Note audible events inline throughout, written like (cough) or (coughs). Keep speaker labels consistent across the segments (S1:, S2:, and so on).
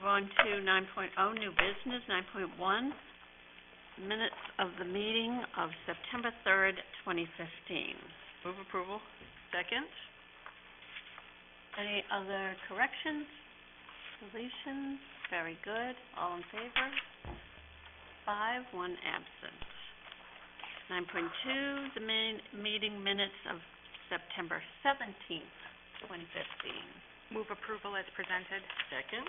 S1: on to nine oh, new business, nine point one, minutes of the meeting of September third, twenty fifteen.
S2: Move approval. Second.
S1: Any other corrections, deletions? Very good. All in favor? Five, one absent. Nine point two, the main meeting minutes of September seventeenth, twenty fifteen.
S2: Move approval as presented. Second.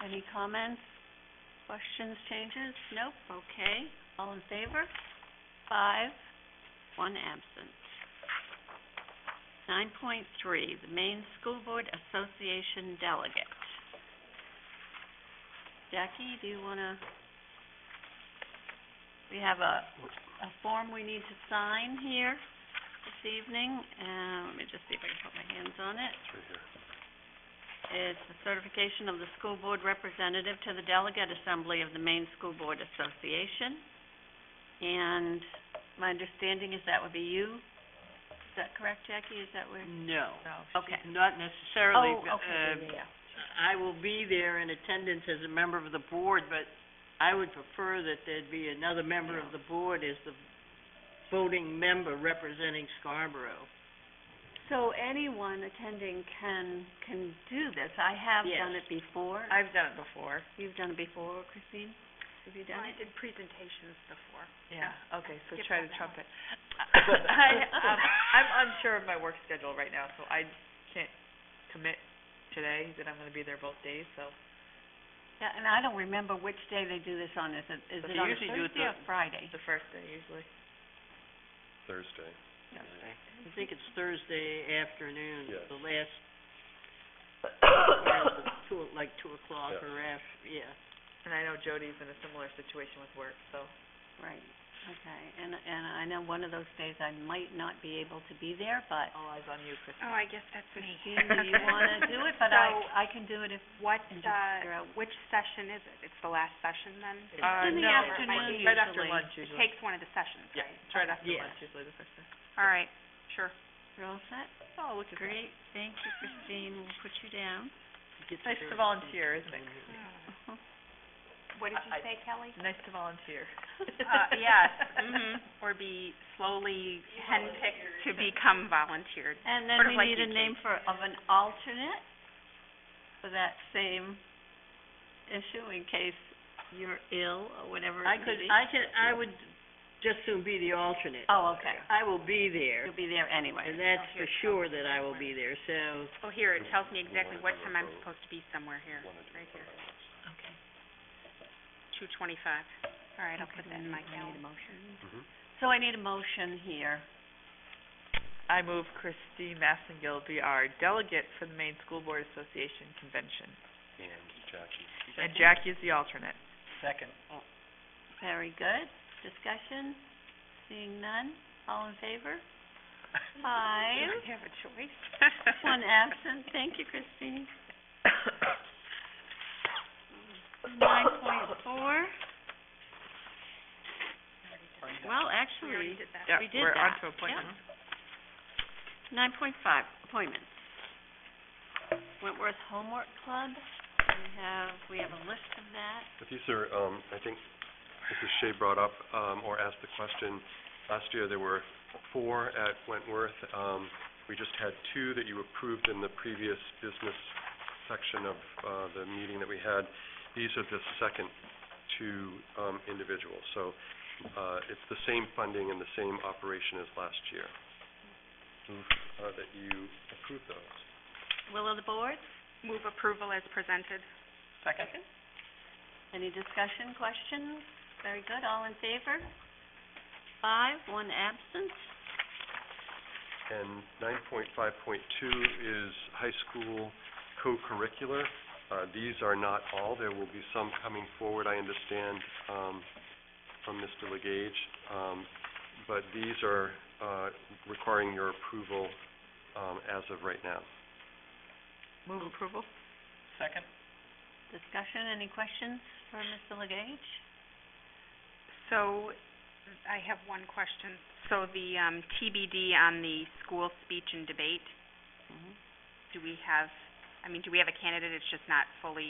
S1: Any comments, questions, changes? Nope, okay. All in favor? Five, one absent. Nine point three, the Maine School Board Association Delegate. Jackie, do you wanna, we have a, a form we need to sign here this evening, and let me just see if I can put my hands on it. It's the certification of the school board representative to the delegate assembly of the Maine School Board Association. And my understanding is that would be you. Is that correct, Jackie? Is that where?
S2: No.
S1: Okay.
S2: Not necessarily.
S1: Oh,
S2: but,
S1: okay,
S2: uh,
S1: yeah, yeah.
S2: I will be there in attendance as a member of the board, but I would prefer that there'd be another member of the board as the voting member representing Scarborough.
S1: So anyone attending can, can do this. I have
S2: Yes.
S1: done it before.
S2: I've done it before.
S1: You've done it before, Christine? Have you done it?
S2: did presentations before.
S3: Yeah, okay, so
S2: Skip
S3: try
S2: that
S3: to trump it.
S2: one.
S3: (laughs) I, um, I'm unsure of my work schedule right now, so I can't commit today that I'm gonna be there both days, so.
S1: Yeah, and I don't remember which day they do this on. Is it, is it
S2: But they
S1: on a
S2: usually do it
S1: Thursday or
S2: the-
S1: Friday?
S3: The first day usually.
S4: Thursday.
S2: I think it's Thursday afternoon,
S4: Yes.
S2: the
S4: (coughs)
S2: last, around the two, like two o'clock
S4: Yes.
S2: or af, yeah.
S3: And I know Jody's in a similar situation with work, so.
S1: Right, okay, and, and I know one of those days I might not be able to be there, but
S3: All eyes on you, Chris.
S2: Oh, I guess that's
S1: Christine, do
S2: (laughs)
S1: you wanna do it? But I, I can do it if,
S2: what, uh,
S1: and just figure out which.
S2: session is it? It's the last session then?
S3: Uh,
S1: In the
S3: no,
S1: afternoon
S3: Right after
S1: usually.
S3: lunch usually.
S2: one of the sessions,
S3: Yeah, it's right after
S2: Yeah.
S3: lunch usually the first day.
S2: All right, sure.
S1: You're all set?
S3: Oh, look at that.
S1: Great, thank you, Christine, we'll put you down. (laughs)
S3: It's nice to volunteer, isn't it?
S2: What
S3: did you I-
S2: say, Kelly?
S3: Mm-hmm. Nice to volunteer.
S2: Uh, yes, mhm,
S3: mm-hmm.
S2: or be slowly handpicked to become volunteered.
S1: And then
S2: Sort of
S1: we
S2: like
S1: need a
S2: you,
S1: name for, of an alternate for that same issue in case you're ill or whatever
S2: I
S1: it
S2: could,
S1: may be.
S2: I could, I would just soon be the alternate.
S1: Oh, okay,
S2: I will be there,
S1: you'll be there anyway.
S2: and that's for sure that I will be there, so.
S4: Oh, here, it tells me exactly what time I'm supposed
S2: to be somewhere here,
S4: right here.
S1: Okay.
S2: two twenty-five. All right,
S1: Okay, we need- we need a motion. So I need a motion here.
S3: (laughs) I move Christine Massengill be our delegate for the Maine School Board Association Convention.
S4: And Jackie.
S3: And Jackie's the alternate.
S2: Second.
S1: Very good. Discussion? Seeing none? All in favor? Five.
S3: have a choice.
S1: One
S2: (laughs)
S1: absent. Thank you, Christine. Nine point four. Well, actually,
S3: Yeah,
S1: We did
S3: we're on
S1: that,
S3: to appointments.
S1: nine point five, appointments. Wentworth Homework Club, we have, we have a list of that.
S4: But these are, um, I think Mrs. Shea brought up, um, or asked the question, last year there were four at Wentworth. Um, we just had two that you approved in the previous business section of, uh, the meeting that we had. These are the second two, um, individuals. So, uh, it's the same funding and the same operation as last year. Move, uh, that you approve those.
S1: Will of the board?
S2: Move approval as presented.
S3: Second?
S1: Any discussion, questions? Very good, all in favor? Five, one absent.
S4: And nine point five point two is high school co-curricular. Uh, these are not all, there will be some coming forward, I understand, um, from Mr. Legage. Um, but these are, uh, requiring your approval, um, as of right now.
S3: Move approval?
S2: Second.
S1: Discussion, any questions for Mr. Legage?
S2: So, I have one question. So the, um, TBD on the school speech and debate,
S1: Mhm.
S2: do we have
S5: I mean, do we have a candidate, it's just not fully